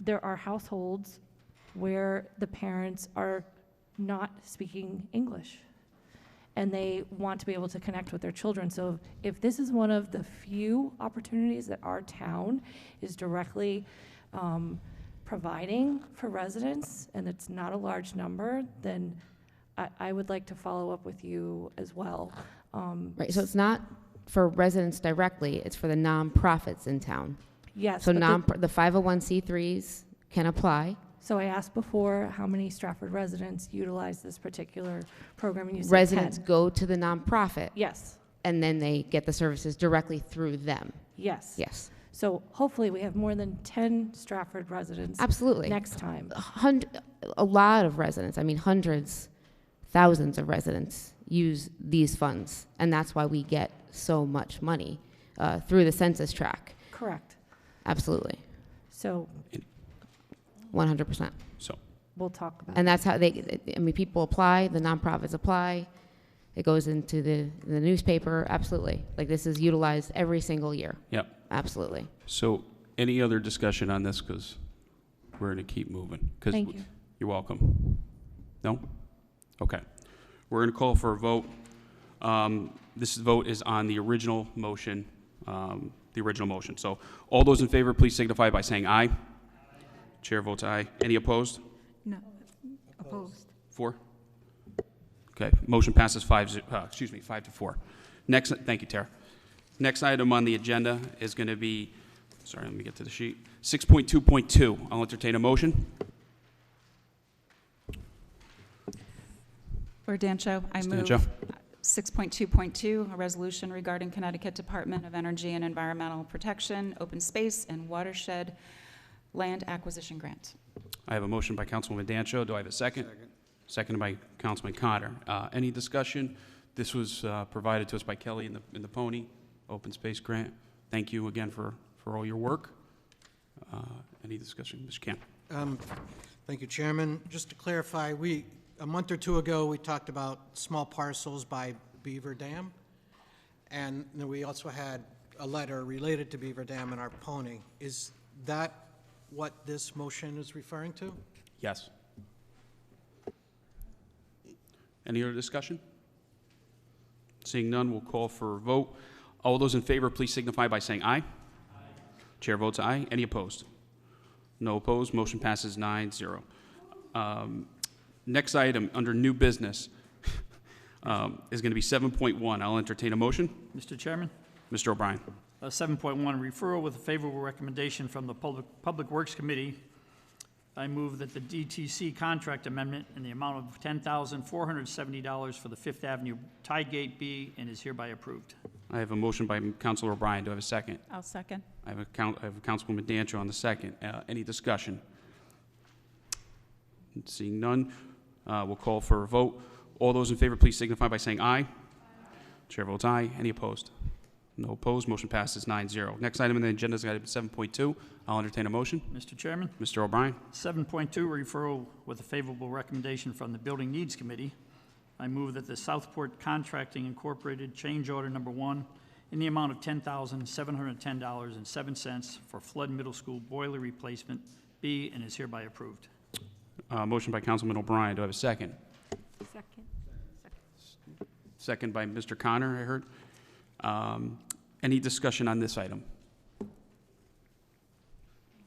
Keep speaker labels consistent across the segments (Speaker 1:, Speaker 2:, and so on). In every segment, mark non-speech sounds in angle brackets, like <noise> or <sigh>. Speaker 1: there are households where the parents are not speaking English and they want to be able to connect with their children. So if this is one of the few opportunities that our town is directly um, providing for residents, and it's not a large number, then I, I would like to follow up with you as well. Um,
Speaker 2: Right, so it's not for residents directly, it's for the nonprofits in town.
Speaker 1: Yes.
Speaker 2: So
Speaker 1: but the-
Speaker 2: non, the 501c3s can apply.
Speaker 1: So I asked before, how many Stratford residents utilize this particular program? and you said 10.
Speaker 2: Residents go to the nonprofit,
Speaker 1: Yes,
Speaker 2: and then they get the services directly through them.
Speaker 1: yes.
Speaker 2: Yes,
Speaker 1: So hopefully, we have more than 10 Stratford residents
Speaker 2: absolutely.
Speaker 1: next time.
Speaker 2: Hund- a lot of residents, I mean, hundreds, thousands of residents use these funds, and that's why we get so much money uh, through the census track.
Speaker 1: Correct.
Speaker 2: Absolutely,
Speaker 1: So
Speaker 2: 100%.
Speaker 3: So,
Speaker 1: we'll talk about it.
Speaker 2: And that's how they, I mean, people apply, the nonprofits apply, it goes into the, the newspaper, absolutely. Like, this is utilized every single year,
Speaker 3: yep.
Speaker 2: absolutely.
Speaker 3: So any other discussion on this? Because we're going to keep moving. 'Cause
Speaker 1: Thank you.
Speaker 3: You're welcome. No? Okay. We're going to call for a vote. Um, This vote is on the original motion, um, the original motion. So all those in favor, please signify by saying aye. Chair votes aye. Any opposed?
Speaker 4: No, opposed.
Speaker 3: Four? Okay, motion passes five, ze- uh, excuse me, five to four. Next, thank you, Tara. Next item on the agenda is going to be, sorry, let me get to the sheet. 6.2.2, I'll entertain a motion.
Speaker 4: Ordancho, I move.
Speaker 3: Stancho.
Speaker 4: 6.2.2, a resolution regarding Connecticut Department of Energy and Environmental Protection, Open Space and Watershed Land Acquisition Grant.
Speaker 3: I have a motion by Councilwoman Dancho. Do I have a second? Seconded by Councilman Connor. Uh, Any discussion? This was uh, provided to us by Kelly in the, in the Pony Open Space Grant. Thank you again for, for all your work. Uh, Any discussion? Mr. Cam?
Speaker 5: Um, Thank you, Chairman. Just to clarify, we, a month or two ago, we talked about small parcels by Beaver Dam, and then we also had a letter related to Beaver Dam and our pony. Is that what this motion is referring to?
Speaker 3: Yes. Any other discussion? Seeing none, we'll call for a vote. All those in favor, please signify by saying aye. Chair votes aye. Any opposed? No opposed. Motion passes nine zero. Um, Next item, under new business, <laughs> um, is going to be 7.1. I'll entertain a motion.
Speaker 6: Mr. Chairman,
Speaker 3: Mr. O'Brien.
Speaker 6: uh, 7.1, referral with a favorable recommendation from the Public Public Works Committee. I move that the DTC contract amendment in the amount of $10,470 for the Fifth Avenue tie gate be and is hereby approved.
Speaker 3: I have a motion by Councilor O'Brien. Do I have a second?
Speaker 4: I'll second.
Speaker 3: I have a coun I have a Councilwoman Dancho on the second. Uh, any discussion? Seeing none, uh, we'll call for a vote. All those in favor, please signify by saying aye. Chair votes aye. Any opposed? No opposed. Motion passes 9-0. Next item on the agenda is item seven point two. I'll entertain a motion.
Speaker 6: Mr. Chairman,
Speaker 3: Mr. O'Brien,
Speaker 6: 7.2, referral with a favorable recommendation from the Building Needs Committee. I move that the Southport Contracting Incorporated change order number one in the amount of $10,710.07 for flood middle school boiler replacement be and is hereby approved.
Speaker 3: uh, motion by Councilman O'Brien. Do I have a second? Second. Second by Mr. Connor, I heard. Um, any discussion on this item?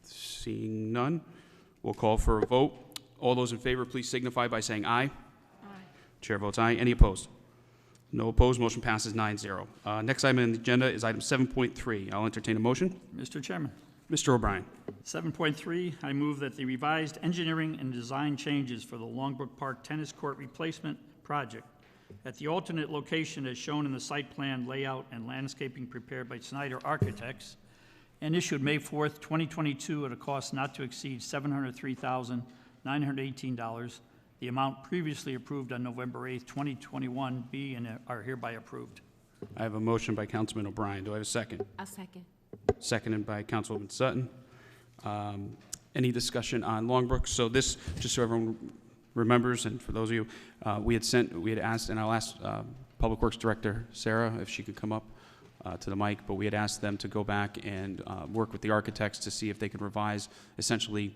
Speaker 3: Seeing none, we'll call for a vote. All those in favor, please signify by saying aye. Chair votes aye. Any opposed? No opposed. Motion passes 9-0. Uh, next item on the agenda is item seven point three. I'll entertain a motion.
Speaker 6: Mr. Chairman,
Speaker 3: Mr. O'Brien.
Speaker 6: 7.3, I move that the revised engineering and design changes for the Longbrook Park Tennis Court Replacement Project at the alternate location as shown in the site plan layout and landscaping prepared by Snyder Architects and issued May 4th, 2022, at a cost not to exceed $703,918, the amount previously approved on November 8th, 2021, be and are hereby approved.
Speaker 3: I have a motion by Councilman O'Brien. Do I have a second?
Speaker 2: I'll second.
Speaker 3: Seconded by Councilwoman Sutton. Um, Any discussion on Longbrook? So this, just so everyone remembers, and for those of you, uh, we had sent, we had asked, and I'll ask um, Public Works Director Sarah if she could come up uh, to the mic, but we had asked them to go back and uh, work with the architects to see if they could revise essentially